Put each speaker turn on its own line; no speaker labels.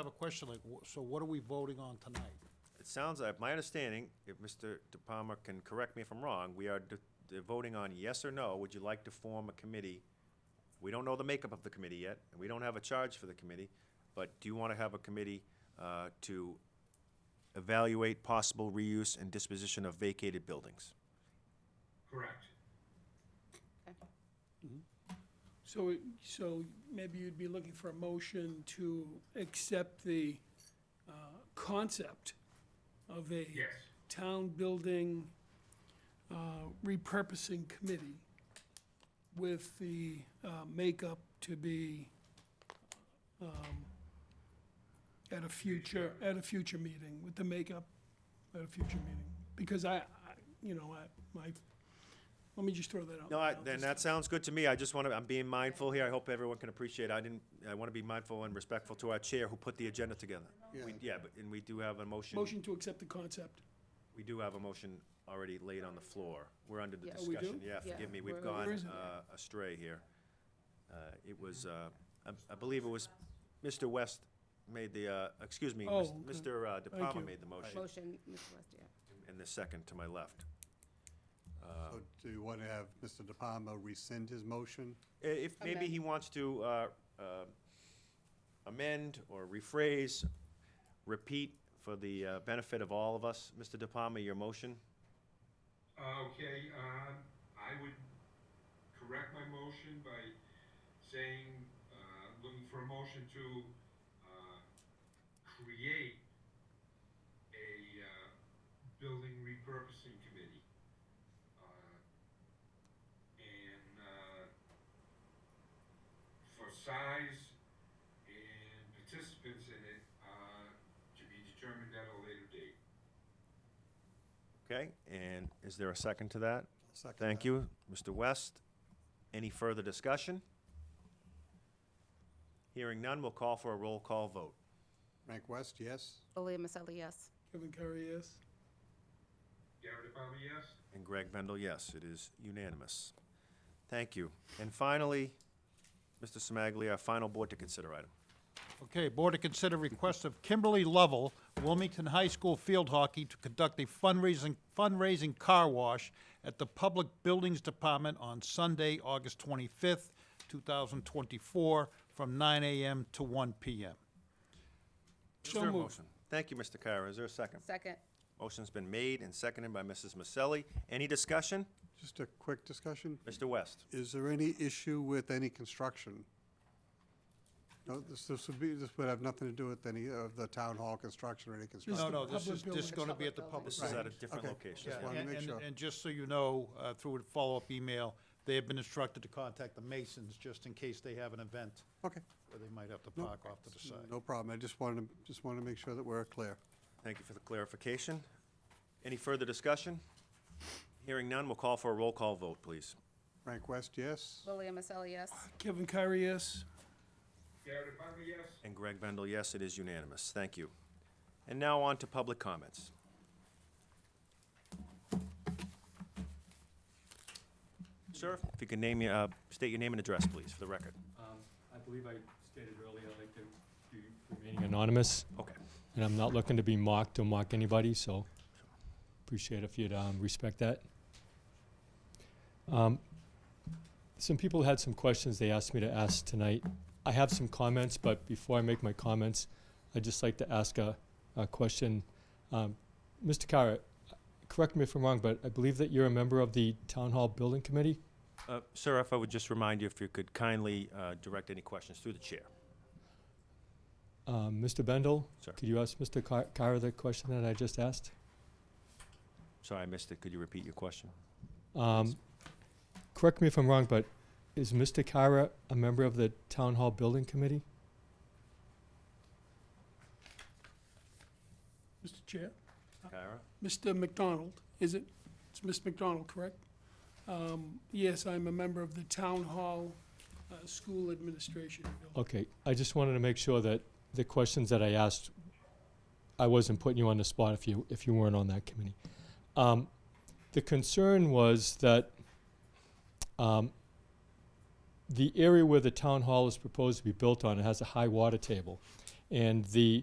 have a question, like, wh- so what are we voting on tonight?
It sounds like, my understanding, if Mr. De Palma can correct me if I'm wrong, we are de- de- voting on yes or no, would you like to form a committee? We don't know the makeup of the committee yet, and we don't have a charge for the committee, but do you want to have a committee uh, to evaluate possible reuse and disposition of vacated buildings?
Correct.
So, so maybe you'd be looking for a motion to accept the uh, concept of a
Yes.
town building uh, repurposing committee with the uh, makeup to be um, at a future, at a future meeting, with the makeup at a future meeting. Because I, I- you know, I, my, let me just throw that out.
No, I-
out
then
this
that sounds good to me. I just want to, I'm being mindful here. I hope everyone can appreciate. I didn't, I want to be mindful and respectful to our chair who put the agenda together. We- Yeah, but, and we do have a motion.
Motion to accept the concept.
We do have a motion already laid on the floor. We're under the
Yeah. Oh, we do?
discussion. Yeah,
Yeah.
forgive me, we've
Where-
gone
where is it?
uh, astray here. Uh, It was, uh, I I believe it was Mr. West made the, uh, excuse me,
Oh,
mis-
okay.
Mr. uh, De
Thank
Palma
you.
made the motion,
Motion, Mr. West, yeah.
and the second to my left. Uh,
So do you want to have Mr. De Palma rescind his motion?
I- If, maybe he wants to uh, uh, amend or rephrase, repeat for the uh, benefit of all of us, Mr. De Palma, your motion?
Okay, um, I would correct my motion by saying, uh, looking for a motion to, uh, create a, uh, building repurposing committee. Uh, And, uh, for size and participants in it, uh, to be determined at a later date.
Okay, and is there a second to that?
Second
Thank
that.
you, Mr. West. Any further discussion? Hearing none, we'll call for a roll call vote.
Frank West, yes?
Leah Maselli, yes.
Kevin Curry, yes.
Gary DePalma, yes?
And Greg Vendel, yes, it is unanimous. Thank you. And finally, Mr. Semaglia, our final board to consider item.
Okay, board to consider request of Kimberly Lovell, Wilmington High School Field Hockey to conduct a fundraising, fundraising car wash at the Public Buildings Department on Sunday, August twenty-fifth, two thousand twenty-four, from nine AM to one PM.
Is
So
there a
moved.
motion? Thank you, Mr. Kira. Is there a second?
Second,
Motion's been made and seconded by Mrs. Maselli. Any discussion?
Just a quick discussion.
Mr. West?
Is there any issue with any construction? No, this, this would be, this would have nothing to do with any of the town hall construction or any construction?
No, no, this is
Public
just gonna be at the public.
This
buildings.
is at a
Right.
different
Okay.
location.
Just
Yeah,
wanted to
and-
make
and-
sure.
And just so you know, uh, through a follow-up email, they have been instructed to contact the Masons just in case they have an event
Okay,
where they might have to
No.
park off to the side.
no problem. I just wanted, to just wanted to make sure that we're clear.
Thank you for the clarification. Any further discussion? Hearing none, we'll call for a roll call vote, please.
Frank West, yes?
Leah Maselli, yes.
Kevin Curry, yes.
Gary DePalma, yes?
And Greg Bendel, yes, it is unanimous. Thank you. And now on to public comments. Sir, if you can name, your- uh, state your name and address, please, for the record.
Um, I believe I stated earlier, I'd like to be remaining anonymous,
Okay.
and I'm not looking to be mocked or mock anybody, so appreciate if you'd um, respect that. Um, Some people had some questions they asked me to ask tonight. I have some comments, but before I make my comments, I'd just like to ask a, a question. Um, Mr. Kara, correct me if I'm wrong, but I believe that you're a member of the Town Hall Building Committee?
Uh, Sir, if I would just remind you, if you could kindly uh, direct any questions through the chair.
Um, Mr. Bendel?
Sir.
Could you ask Mr. Car- Carr the question that I just asked?
Sorry, I missed it. Could you repeat your question?
Um, correct me if I'm wrong, but is Mr. Kara a member of the Town Hall Building Committee?
Mr. Chair?
Kyra?
Mr. McDonald, is it? It's Miss McDonald, correct? Um, Yes, I'm a member of the Town Hall uh, School Administration. Building.
Okay, I just wanted to make sure that the questions that I asked, I wasn't putting you on the spot if you, if you weren't on that committee. Um, the concern was that, um, the area where the town hall is proposed to be built on, it has a high water table. And the